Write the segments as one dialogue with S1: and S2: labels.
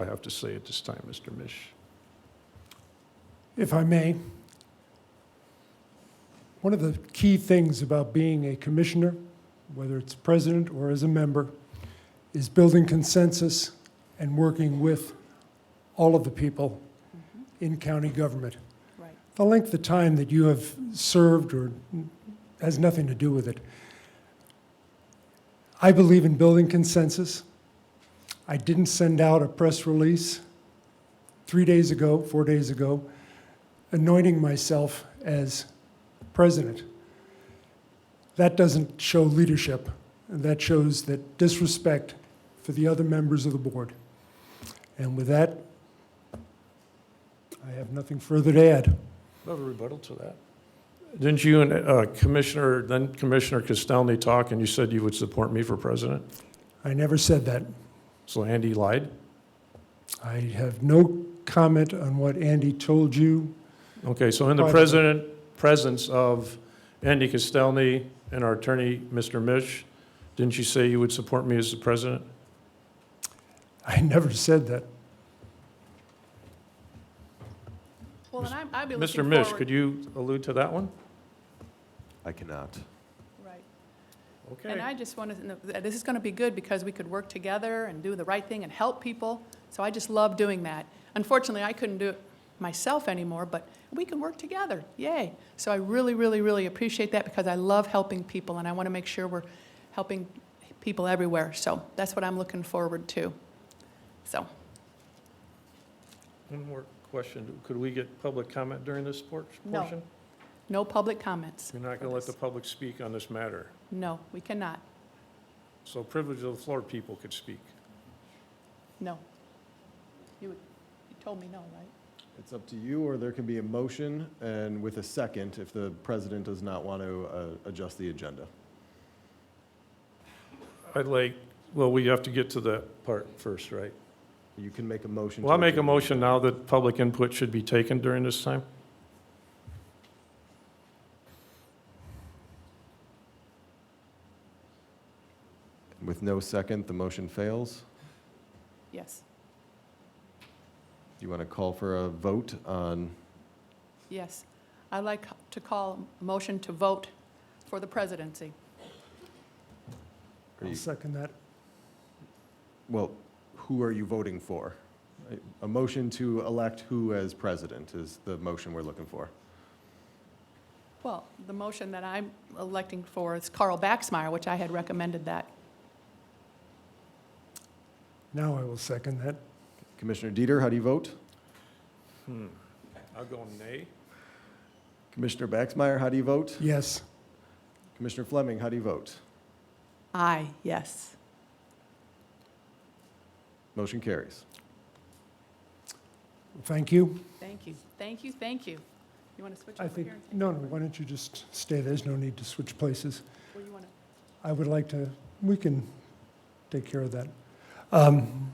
S1: I have to say at this time, Mr. Mish.
S2: If I may, one of the key things about being a commissioner, whether it's president or as a member, is building consensus and working with all of the people
S3: Mm-hmm.
S2: in county government.
S3: Right.
S2: The length of time that you have served or has nothing to do with it. I believe in building consensus. I didn't send out a press release three days ago, four days ago, anointing myself as president. That doesn't show leadership. That shows that disrespect for the other members of the board. And with that, I have nothing further to add.
S1: Do I have a rebuttal to that? Didn't you and uh, Commissioner, then Commissioner Castelny talk, and you said you would support me for president?
S2: I never said that.
S1: So Andy lied?
S2: I have no comment on what Andy told you.
S1: Okay, so in the president, presence of Andy Castelny and our attorney, Mr. Mish, didn't you say you would support me as the president?
S2: I never said that.
S3: Well, and I'm- I'd be looking
S1: Mr.
S3: forward.
S1: Mish, could you allude to that one?
S4: I cannot.
S3: Right. And
S1: Okay.
S3: I just want to, this is going to be good because we could work together and do the right thing and help people. So I just love doing that. Unfortunately, I couldn't do it myself anymore, but we can work together. Yay. So I really, really, really appreciate that because I love helping people and I want to make sure we're helping people everywhere. So that's what I'm looking forward to. So,
S1: One more question. Could we get public comment during this por-
S3: No.
S1: portion?
S3: no public comments.
S1: You're not going to let the public speak on this matter.
S3: No, we cannot.
S1: So privilege of the floor people could speak.
S3: No. You would- you told me no, right?
S5: It's up to you, or there can be a motion and with a second if the president does not want to uh, adjust the agenda.
S1: I'd like, well, we have to get to that part first, right?
S5: You can make a motion.
S1: Well, I'll
S5: to
S1: make a
S5: adjourn.
S1: motion now that public input should be taken during this time.
S5: With no second, the motion fails.
S3: Yes,
S5: Do you want to call for a vote on,
S3: yes. I'd like to call a motion to vote for the presidency.
S5: Are
S2: I'll
S5: you-
S2: second that.
S5: well, who are you voting for? A- A motion to elect who as president is the motion we're looking for.
S3: Well, the motion that I'm electing for is Carl Baxmeyer, which I had recommended that.
S2: Now I will second that.
S5: Commissioner Dieter, how do you vote?
S1: Hmm. I'll go nay.
S5: Commissioner Baxmeyer, how do you vote?
S2: Yes.
S5: Commissioner Fleming, how do you vote?
S3: Aye, yes.
S5: Motion carries.
S2: Thank you.
S3: Thank you, thank you, thank you. You want to switch
S2: I
S3: over
S2: think,
S3: here? and take
S2: no,
S3: over?
S2: no, why don't you just stay? There's no need to switch places.
S3: Or you want to-
S2: I would like to, we can take care of that. Um,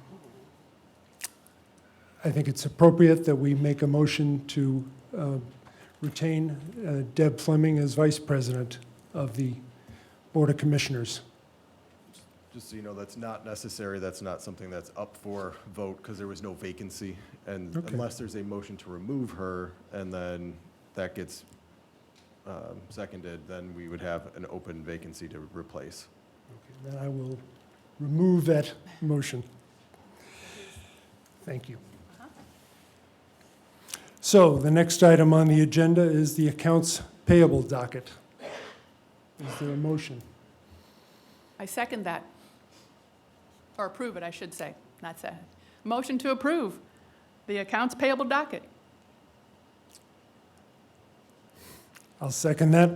S2: I think it's appropriate that we make a motion to uh, retain uh, Deb Fleming as Vice President of the Board of Commissioners.
S5: Just so you know, that's not necessary, that's not something that's up for vote, because there was no vacancy. And
S2: Okay.
S5: unless there's a motion to remove her, and then that gets um, seconded, then we would have an open vacancy to replace.
S2: Then I will remove that motion. Thank you. So the next item on the agenda is the accounts payable docket. Is there a motion?
S3: I second that. Or approve it, I should say, not say. Motion to approve the accounts payable docket.
S2: I'll second that.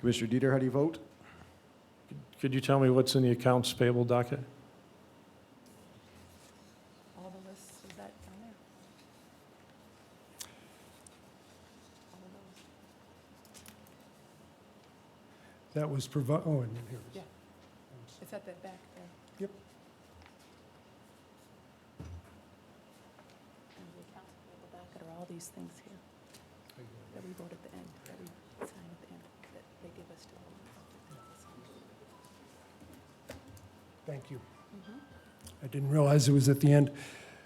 S5: Commissioner Dieter, how do you vote?
S1: Could you tell me what's in the accounts payable docket?
S3: All the lists, is that down there? All of those?
S2: That was provi, oh, and here it
S3: Yeah.
S2: is.
S3: It's at the back there.
S2: Yep.
S3: And the accounts payable docket are all these things here that we vote at the end, that we sign at the end, that they give us to all
S2: Thank you.
S3: of us.
S2: I didn't realize it was at the end.